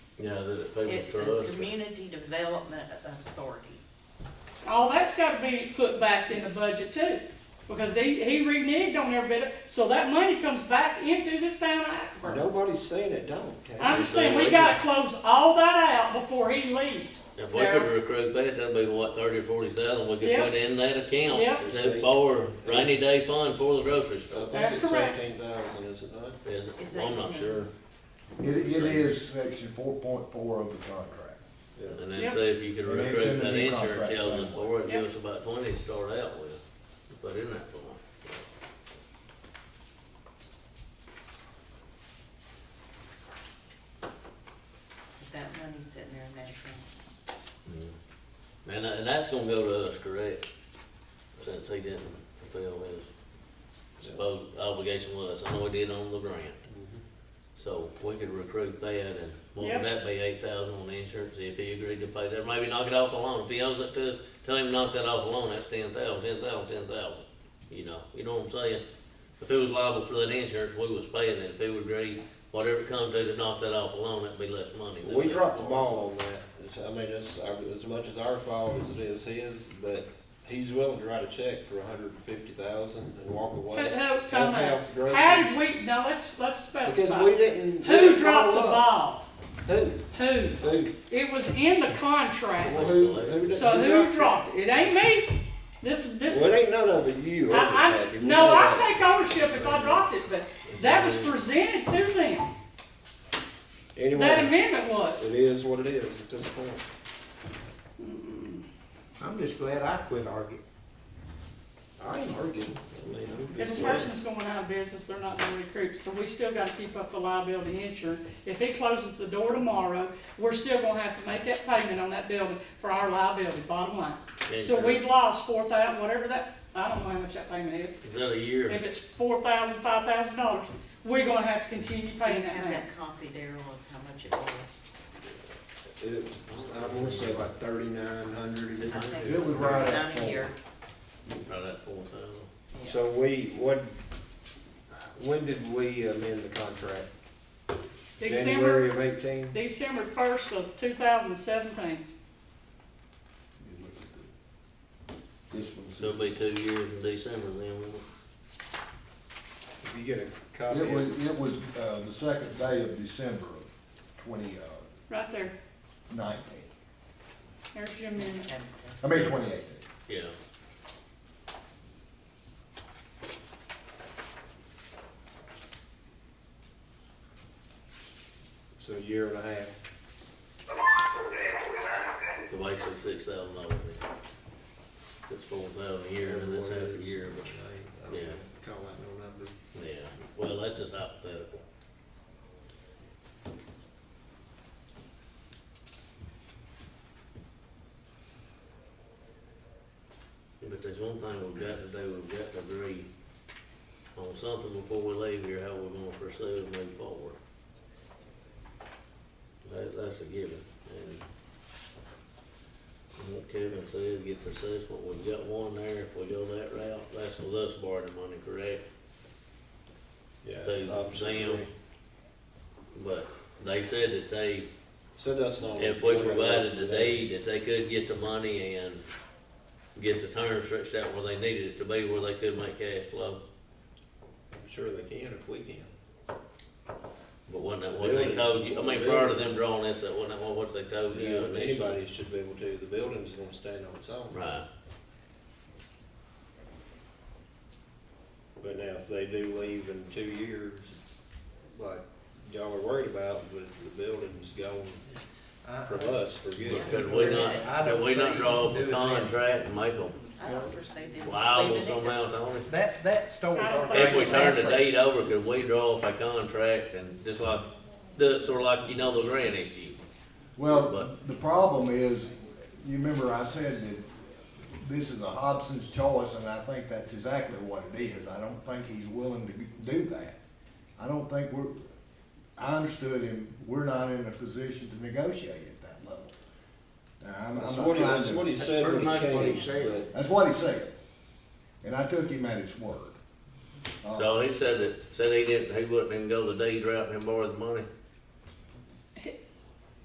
Yeah, that it pays It's to us. the Community Development Authority. All that's gotta be put back in the budget too, because he, he reneged on every bit, of- so that money comes back into this town of Hackleburg. Nobody's saying it don't. Ted. I'm just saying, we gotta close all that out before he leaves. If we could recruit that, that'd be what, thirty or forty thousand, we could Yep. put in that account Yep. to- for rainy day fund for the grocery I store. think That's it's correct. Eighteen thousand, is it not? Is it? It's Well, I'm not 18. sure. It, it is section four point four of the contract. Yeah. And then Yep. see if you could And it's in recruit the that new insurance contract tells us for it, give Yep. us about twenty to start out with, to put in that form. That money's sitting there in that account. And, and that's gonna go to us, correct? Since he didn't fulfill his supposed obligation with us, I know he did on the grant. Mm-hmm. So we could recruit that and what Yep. would that be, eight thousand on the insurance, if he agreed to pay that, maybe knock it off the loan, if he owes it to us, tell him to knock that off the loan, that's ten thousand, ten thousand, ten thousand. You know, you know what I'm saying? If he was liable for that insurance, we was paying it, if he would agree, whatever it comes to to knock that off the loan, that'd be less money. than We that. dropped the ball on that. It's, I mean, it's, our- as much as our fault as it is his, but he's willing to write a check for a hundred and fifty thousand and walk Who, away. who, And time have out. the groceries. How did we, now let's, let's Because we specify. didn't. we Who didn't dropped the follow up. ball? Who? Who? Who? It was in the Well, contract, who- who so who dropped it? It ain't me. This, this. Well, it ain't none of it you. ain't it, I, Sandy? I, We no, know I that. take ownership if I dropped it, but that was presented to them, that Anyway, amendment it was. is what it is at this point. I'm just glad I quit arguing. I ain't arguing. I mean, I'm If just a saying. person's going out of business, they're not gonna recruit, so we still gotta keep up the liability insurance. If he closes the door tomorrow, we're still gonna have to make that payment on that building for our liability, bottom line. So Insurance. we've lost four thousand, whatever that, I don't know how much that payment is. Is that a year? If it's four thousand, five thousand dollars, we're gonna have to continue Do paying you that have back. that copy, Daryl, of how much it was? It was, I wanna say like thirty-nine hundred a I year. think It was right at around a four. year. About that four thousand. Yeah. So we, what, when did we amend the contract? January December, of eighteen? December first of two thousand seventeen. You look at the- This one's. So it'll be two years in December then, won't it? If you get a copy It of was, it was, uh, the second day of December of twenty, uh, Right there, nineteen, there's your minutes. I mean, twenty eighteen. Yeah. it's a year and a half. So basically six thousand dollars. It's four thousand a year, and that's half a year, but, I don't Yeah. Call that no number. yeah, well, that's just hypothetical. But there's one thing we've got to do, we've got to agree on something before we leave here, how we're gonna pursue and move forward. That, that's a given, and and what Kevin said, get the assessment, we've got one there, if we go that route, that's with us borrowing money, correct? So, Option Sam, three. But they said that they, Send us on. if we provided the deed, that they could get the money and get the terms stretched out where they needed it to be, where they could make cash flow. I'm Sure they can if we can. But wasn't that what they told you, I mean, prior to them drawing this, that wasn't that what they told you Yeah, initially? Anybody should be able to, the building's gonna stand on its own. Right, But now, if they do leave in two years, like y'all are worried about, but the building's gone from us for good. but could we not, could we not draw up a contract and make them I don't foresee them liable leaving either. somehow, Tony? That, that story. I don't already If we turn the said- date over, could we draw up a contract and just like, do it sort of like, you know, the grant issue? Well, But- the problem is, you remember I said that this is a Hobson's choice, and I think that's exactly what it is. I don't think he's willing to do that. I don't think we're, I understood him, we're not in a position to negotiate at that level. Now, I'm, I'm That's not what he, trying that's what to, he said when That's he pretty much what he came, said. that's what he said, and I took him at his word. Uh, So he said that, said he didn't, he wouldn't even go the deed route and borrow the money.